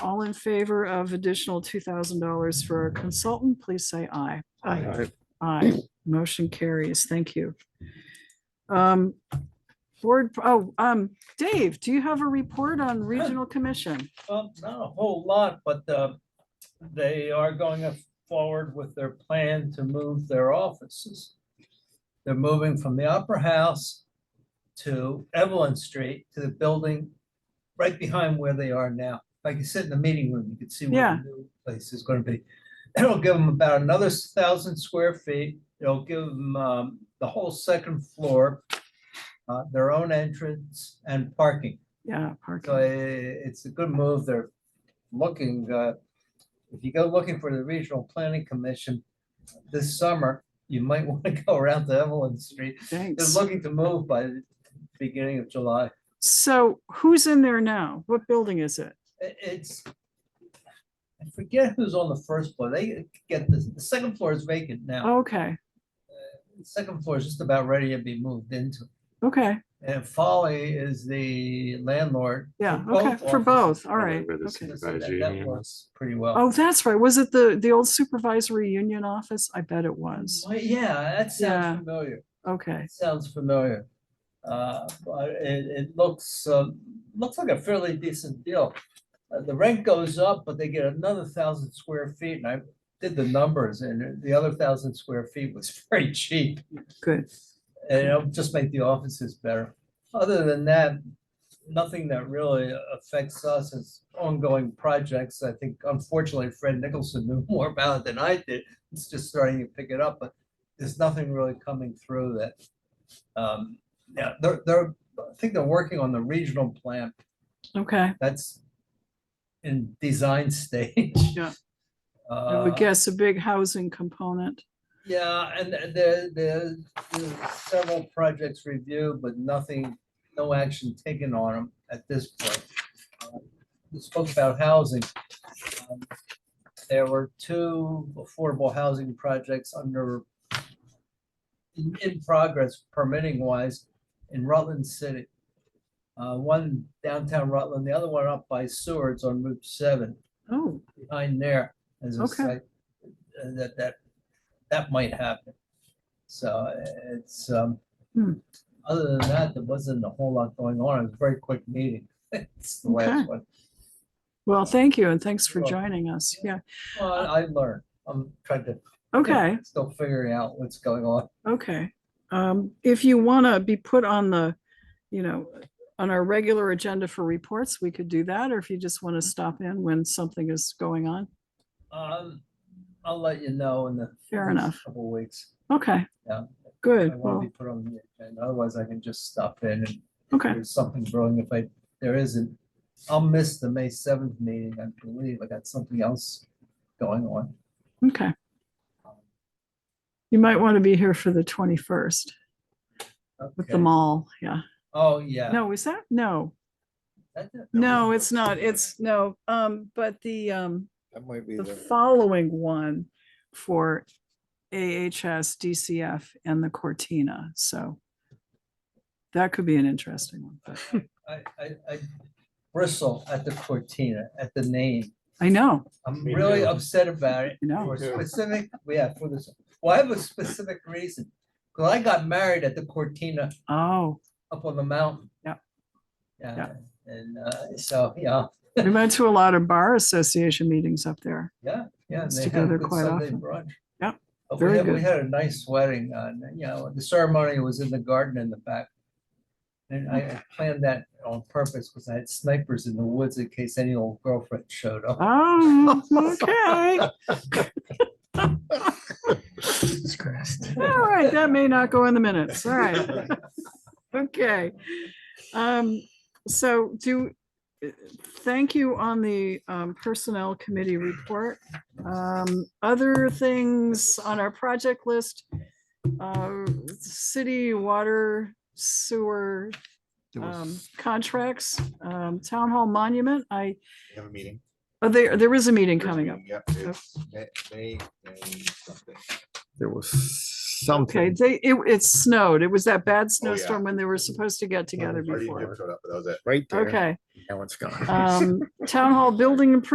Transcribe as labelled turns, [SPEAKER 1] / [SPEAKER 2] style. [SPEAKER 1] All in favor of additional two thousand dollars for our consultant, please say aye. Aye, motion carries. Thank you. Um, board, oh, um, Dave, do you have a report on regional commission?
[SPEAKER 2] Well, not a whole lot, but uh, they are going forward with their plan to move their offices. They're moving from the Opera House to Evelyn Street to the building right behind where they are now. Like you sit in the meeting room, you can see where
[SPEAKER 1] Yeah.
[SPEAKER 2] the new place is gonna be. It'll give them about another thousand square feet. It'll give them um, the whole second floor, uh, their own entrance and parking.
[SPEAKER 1] Yeah,
[SPEAKER 2] So
[SPEAKER 1] parking.
[SPEAKER 2] i- it's a good move. They're looking, uh, if you go looking for the Regional Planning Commission this summer, you might want to go around to Evelyn Street. They're
[SPEAKER 1] Thanks.
[SPEAKER 2] looking to move by the beginning of July.
[SPEAKER 1] So who's in there now? What building is it?
[SPEAKER 2] I- It's, I forget who's on the first floor. They get this, the second floor is vacant now.
[SPEAKER 1] Okay,
[SPEAKER 2] The Second floor is just about ready to be moved into.
[SPEAKER 1] okay,
[SPEAKER 2] And Folly is the landlord.
[SPEAKER 1] yeah,
[SPEAKER 2] both
[SPEAKER 1] okay, for
[SPEAKER 2] offices.
[SPEAKER 1] both, all right.
[SPEAKER 3] Where the
[SPEAKER 1] okay.
[SPEAKER 2] So
[SPEAKER 3] By
[SPEAKER 2] that-
[SPEAKER 3] Jamie,
[SPEAKER 2] That works pretty well.
[SPEAKER 1] Oh, that's right. Was it the, the old supervisory union office? I bet it was.
[SPEAKER 2] Well, Yeah, that
[SPEAKER 1] Oh, Yeah.
[SPEAKER 2] sounds familiar.
[SPEAKER 1] Okay,
[SPEAKER 2] It Sounds familiar. Uh, But it, it looks, um, looks like a fairly decent deal. Uh, The rent goes up, but they get another thousand square feet, and I did the numbers, and the other thousand square feet was very cheap.
[SPEAKER 1] good.
[SPEAKER 2] And it'll just make the offices better. Other than that, nothing that really affects us is ongoing projects. I think unfortunately Fred Nicholson knew more about it than I did. It's just starting to pick it up, but there's nothing really coming through that. Um, yeah, they're, they're, I think they're working on the regional plan.
[SPEAKER 1] Okay,
[SPEAKER 2] That's in design stage.
[SPEAKER 1] Yeah. I
[SPEAKER 2] Uh,
[SPEAKER 1] would guess a big housing component.
[SPEAKER 2] yeah, and th- there, there, there's several projects reviewed, but nothing, no action taken on them at this point. Uh, We spoke about housing. Um, There were two affordable housing projects under in, in progress permitting wise in Rutland City. Uh, one downtown Rutland, the other one up by Seward's on Route seven
[SPEAKER 1] Oh,
[SPEAKER 2] behind there as a
[SPEAKER 1] Okay.
[SPEAKER 2] site uh, that, that, that might happen. So it's, um,
[SPEAKER 1] Hmm.
[SPEAKER 2] other than that, there wasn't a whole lot going on. It was a very quick meeting. It's the
[SPEAKER 1] Okay.
[SPEAKER 2] last one.
[SPEAKER 1] well, thank you and thanks for
[SPEAKER 2] You're welcome.
[SPEAKER 1] joining us. Yeah,
[SPEAKER 2] Well, I learned. I'm trying to.
[SPEAKER 1] okay.
[SPEAKER 2] Still figuring out what's going on.
[SPEAKER 1] Okay, um, if you want to be put on the, you know, on our regular agenda for reports, we could do that, or if you just
[SPEAKER 2] Mm-hmm.
[SPEAKER 1] want to stop in when something is going on.
[SPEAKER 2] Um, I'll let you know in the.
[SPEAKER 1] Fair
[SPEAKER 2] next
[SPEAKER 1] enough.
[SPEAKER 2] Couple weeks.
[SPEAKER 1] Okay,
[SPEAKER 2] Yeah.
[SPEAKER 1] good.
[SPEAKER 2] I won't
[SPEAKER 1] Well,
[SPEAKER 2] be put on the agenda. Otherwise I can just stop in and
[SPEAKER 1] okay,
[SPEAKER 2] there's something growing if I, there isn't. I'll miss the May seventh meeting, I believe. I got something else going on.
[SPEAKER 1] okay. You might want to be here for the twenty-first Uh, with
[SPEAKER 2] Okay.
[SPEAKER 1] the mall, yeah.
[SPEAKER 2] Oh, yeah.
[SPEAKER 1] No, is that? No,
[SPEAKER 2] That- that- that
[SPEAKER 1] no,
[SPEAKER 2] was-
[SPEAKER 1] it's not. It's, no, um, but the, um,
[SPEAKER 4] That might be
[SPEAKER 1] the
[SPEAKER 4] the,
[SPEAKER 1] following one for AHS, DCF, and the Cortina, so that could be an interesting one, but
[SPEAKER 2] I, I, I bristle at the Cortina, at the name.
[SPEAKER 1] I know,
[SPEAKER 2] I'm
[SPEAKER 3] Me
[SPEAKER 2] really
[SPEAKER 3] too.
[SPEAKER 2] upset about it.
[SPEAKER 1] I know.
[SPEAKER 2] For
[SPEAKER 4] too.
[SPEAKER 2] specific, yeah, for this, well, I have a specific reason. Cause I got married at the Cortina
[SPEAKER 1] Oh,
[SPEAKER 2] up on the mountain.
[SPEAKER 1] Yeah.
[SPEAKER 2] Yeah,
[SPEAKER 1] Yeah.
[SPEAKER 2] and, uh, so, yeah,
[SPEAKER 1] we went to a lot of bar association meetings up there.
[SPEAKER 2] Yeah, yeah.
[SPEAKER 1] It's
[SPEAKER 2] they had a
[SPEAKER 1] together
[SPEAKER 2] good
[SPEAKER 1] quite
[SPEAKER 2] Sunday
[SPEAKER 1] often.
[SPEAKER 2] brunch. Oh,
[SPEAKER 1] Yep,
[SPEAKER 2] But
[SPEAKER 1] very
[SPEAKER 2] we had, we
[SPEAKER 1] good.
[SPEAKER 2] had a nice wedding, uh, and, you know, the ceremony was in the garden in the back. And I- I planned that on purpose because I had snipers in the woods in case any old girlfriend showed up.
[SPEAKER 1] Oh, okay,
[SPEAKER 4] Jesus Christ.
[SPEAKER 1] all right, that may not go in the minutes, all right, okay. Um, so do, thank you on the um, Personnel Committee report. Um, Other things on our project list, uh, city water sewer
[SPEAKER 4] There was-
[SPEAKER 1] um, contracts, um, town hall monument, I,
[SPEAKER 4] we have a meeting.
[SPEAKER 1] oh, there, there is a meeting
[SPEAKER 4] There's a
[SPEAKER 1] coming up.
[SPEAKER 4] meeting, Yep, it's May, May, May something. There was
[SPEAKER 1] Okay,
[SPEAKER 4] something. Oh,
[SPEAKER 1] they, it, it snowed, it was that bad
[SPEAKER 4] yeah.
[SPEAKER 1] snowstorm when they were supposed to get together
[SPEAKER 4] Marty and Jim
[SPEAKER 1] before.
[SPEAKER 4] showed up, but That was it, right there.
[SPEAKER 1] Okay,
[SPEAKER 4] Now it's gone.
[SPEAKER 1] um, town hall building improvement